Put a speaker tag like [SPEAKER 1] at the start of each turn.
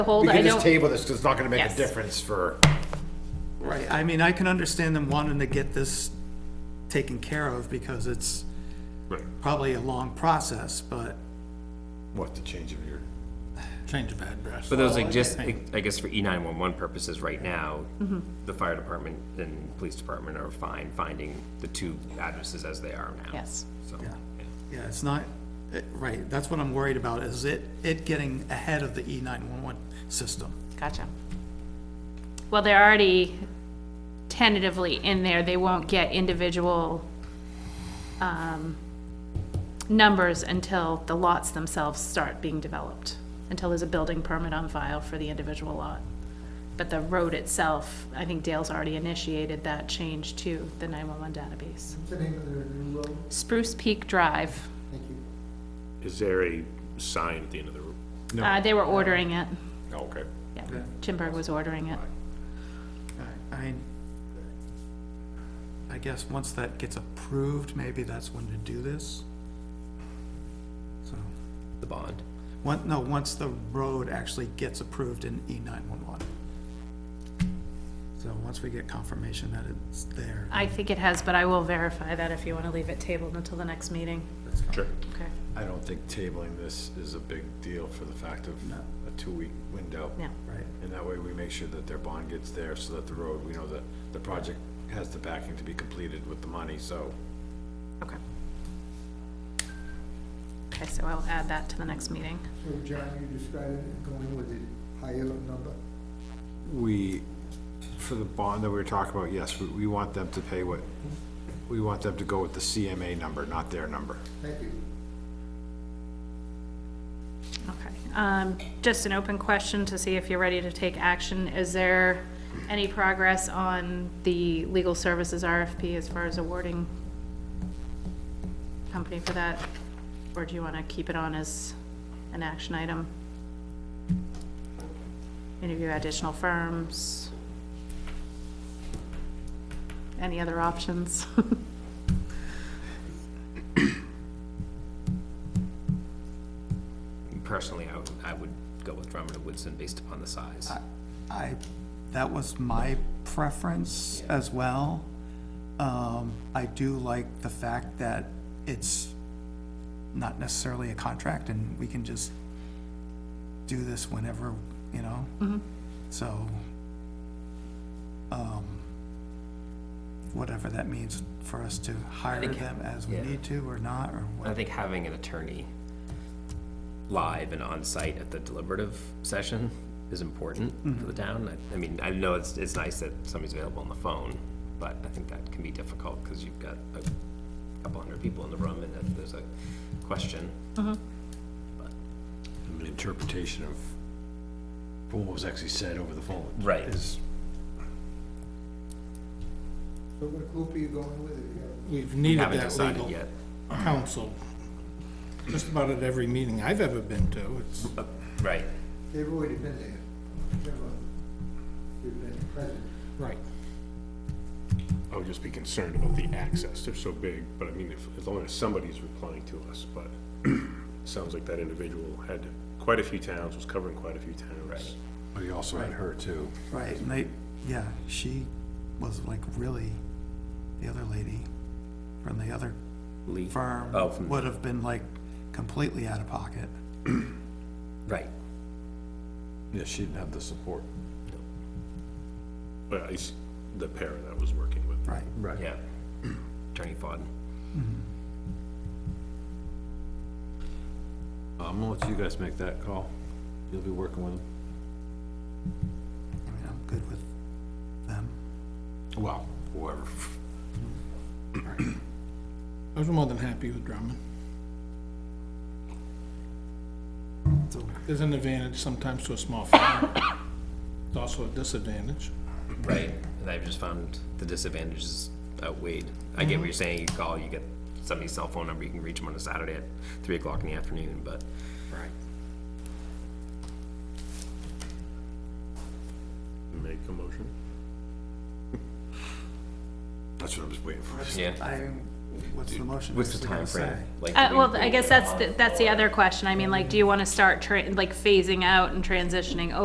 [SPEAKER 1] hold,
[SPEAKER 2] We
[SPEAKER 1] I
[SPEAKER 2] can just
[SPEAKER 1] don't,
[SPEAKER 2] table this, 'cause it's not gonna make a
[SPEAKER 1] Yes.
[SPEAKER 2] difference for,
[SPEAKER 3] Right, I mean, I can understand them wanting to get this taken care of because it's probably a long process, but
[SPEAKER 2] what, the change of your,
[SPEAKER 4] Change of address.
[SPEAKER 5] But those exist, I guess for E nine one one purposes right now, the fire department and police department are fine finding the two addresses as they are now.
[SPEAKER 1] yes.
[SPEAKER 5] So,
[SPEAKER 3] yeah, it's not, it- right, that's what I'm worried about, is it, it getting ahead of the E nine-one-one system.
[SPEAKER 1] Gotcha. Well, they're already tentatively in there, they won't get individual, um, numbers until the lots themselves start being developed, until there's a building permit on file for the individual lot. But the road itself, I think Dale's already initiated that change to the nine-one-one database.
[SPEAKER 6] What's the name of their new road?
[SPEAKER 1] Spruce Peak Drive,
[SPEAKER 6] Thank you.
[SPEAKER 7] Is there a sign at the end of the room?
[SPEAKER 1] uh, they were ordering it,
[SPEAKER 2] Oh,
[SPEAKER 7] Okay.
[SPEAKER 1] yeah, Chimberg was ordering it.
[SPEAKER 3] I mean, I guess once that gets approved, maybe that's when to do this. So,
[SPEAKER 5] the bond.
[SPEAKER 3] one, no, once the road actually gets approved in E nine-one-one. So once we get confirmation that it's there,
[SPEAKER 1] I think it has, but I will verify that if you want to leave it tabled until the next meeting.
[SPEAKER 7] Sure.
[SPEAKER 1] Okay,
[SPEAKER 2] I don't think tabling this is a big deal for the fact of a two-week window.
[SPEAKER 1] no.
[SPEAKER 3] right?
[SPEAKER 2] And that way we make sure that their bond gets there, so that the road, we know that the project has the backing to be completed with the money, so.
[SPEAKER 1] Okay. Okay, so I'll add that to the next meeting.
[SPEAKER 6] So John, you described it going with the higher number.
[SPEAKER 2] We, for the bond that we were talking about, yes, we, we want them to pay what, we want them to go with the CMA number, not their number.
[SPEAKER 6] Thank you.
[SPEAKER 1] Okay. Um, just an open question to see if you're ready to take action. Is there any progress on the legal services RFP as far as awarding company for that? Or do you want to keep it on as an action item? Interview additional firms? Any other options?
[SPEAKER 5] Personally, I would, I would go with Drummond and Woodson based upon the size.
[SPEAKER 3] I, that was my preference as well. Um, I do like the fact that it's not necessarily a contract and we can just do this whenever, you know? So, um, whatever that means for us to hire
[SPEAKER 5] think-
[SPEAKER 3] them as we
[SPEAKER 5] yeah.
[SPEAKER 3] need to or not, or
[SPEAKER 5] I
[SPEAKER 3] what,
[SPEAKER 5] think having an attorney live and on site at the deliberative session is important for the town. I- I mean, I know it's, it's nice that somebody's available on the phone, but I think that can be difficult because you've got a couple hundred people in the room and if there's a question.
[SPEAKER 2] An interpretation of what was actually said over the phone.
[SPEAKER 5] Right.
[SPEAKER 2] Is
[SPEAKER 6] So what group are you going with? If you have-
[SPEAKER 4] We've needed
[SPEAKER 5] Haven't
[SPEAKER 4] that
[SPEAKER 5] decided
[SPEAKER 4] legal
[SPEAKER 5] yet.
[SPEAKER 4] counsel just about at every meeting I've ever been to. It's,
[SPEAKER 5] Right.
[SPEAKER 6] They've already been there. Never. They've been present.
[SPEAKER 4] right.
[SPEAKER 7] I would just be concerned about the access. They're so big, but I mean, if, as long as somebody's replying to us, but it sounds like that individual had quite a few towns, was covering quite a few towns. Right.
[SPEAKER 2] But you also had her too.
[SPEAKER 3] right, and they, yeah, she was like really, the other lady from the other
[SPEAKER 5] Lee.
[SPEAKER 3] firm
[SPEAKER 5] Oh, from-
[SPEAKER 3] would have been like completely out of pocket.
[SPEAKER 5] Right.
[SPEAKER 2] Yeah, she didn't have the support.
[SPEAKER 7] But I, s- the pair that was working with.
[SPEAKER 3] Right.
[SPEAKER 2] Right.
[SPEAKER 5] Yeah. Attorney Fodden.
[SPEAKER 2] I'm gonna let you guys make that call. You'll be working with them.
[SPEAKER 3] I mean, I'm good with them.
[SPEAKER 2] Well, whoever.
[SPEAKER 4] I was more than happy with Drummond.
[SPEAKER 3] So,
[SPEAKER 4] There's an advantage sometimes to a small firm. It's also a disadvantage.
[SPEAKER 5] Right. And I've just found the disadvantages outweighed. I
[SPEAKER 4] Mm-hmm.
[SPEAKER 5] get what you're saying. You call, you get somebody's cell phone number, you can reach them on a Saturday at three o'clock in the afternoon, but
[SPEAKER 4] Right.
[SPEAKER 7] Make a motion.
[SPEAKER 2] That's what I was waiting for.
[SPEAKER 5] yeah.
[SPEAKER 3] I, what's the motion?
[SPEAKER 5] What's the
[SPEAKER 3] actually gonna
[SPEAKER 5] time frame?
[SPEAKER 3] say?
[SPEAKER 5] Like,
[SPEAKER 1] Uh,
[SPEAKER 5] do we-
[SPEAKER 1] well, I guess that's, the- that's the other question. I mean, like, do you want to start, tra- like, phasing out and transitioning